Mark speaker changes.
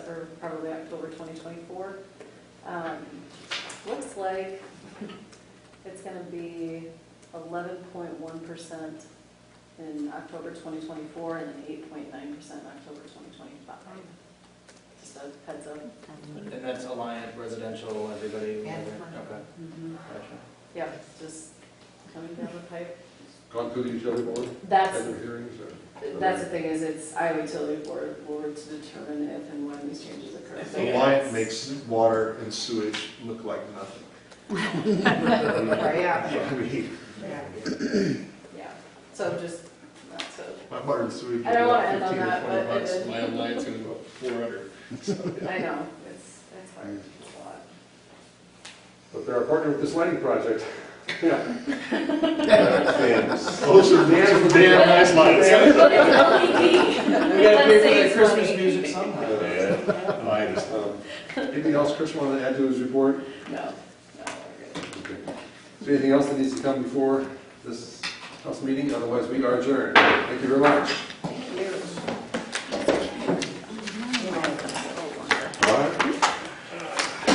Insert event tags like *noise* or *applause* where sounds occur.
Speaker 1: for probably October 2024. Um, Looks like it's going to be 11.1% in October 2024 and then 8.9% in October 2025. Just a heads up.
Speaker 2: And that's Alliant Residential, everybody?
Speaker 3: And
Speaker 2: Okay,
Speaker 1: Mm-hmm.
Speaker 2: gotcha.
Speaker 1: Yeah, just coming down the pipe.
Speaker 4: Gone through the utility board, had
Speaker 1: That's,
Speaker 4: their hearings, or?
Speaker 1: that's the thing is, it's Iowa Utility Board, board to determine if and when these changes occur. So
Speaker 5: Alliant makes water and sewage look like nothing.
Speaker 1: Right, Yeah,
Speaker 5: *laughs* I mean,
Speaker 1: yeah, so just, not so.
Speaker 5: My water and sewage.
Speaker 1: I don't wanna
Speaker 5: look
Speaker 1: end on that, but
Speaker 5: like 15 or 20
Speaker 1: it
Speaker 5: bucks.
Speaker 1: is-
Speaker 5: My lights are about four hundred.
Speaker 1: I know, it's, it's hard, it's a lot.
Speaker 4: But they're a partner with this lighting project. *laughs* Yeah.
Speaker 5: Those are *laughs* damn, damn nice lights.
Speaker 1: But it's LED.
Speaker 2: *laughs* We gotta
Speaker 1: Let's say
Speaker 2: pay
Speaker 1: it's
Speaker 2: for the Christmas
Speaker 1: funny.
Speaker 2: music somehow.
Speaker 4: Um, Anything else Chris wanted to add to his report?
Speaker 1: No, no, we're good.
Speaker 4: Okay. Is there anything else that needs to come before this council meeting? Otherwise, we are adjourned. Thank you very much.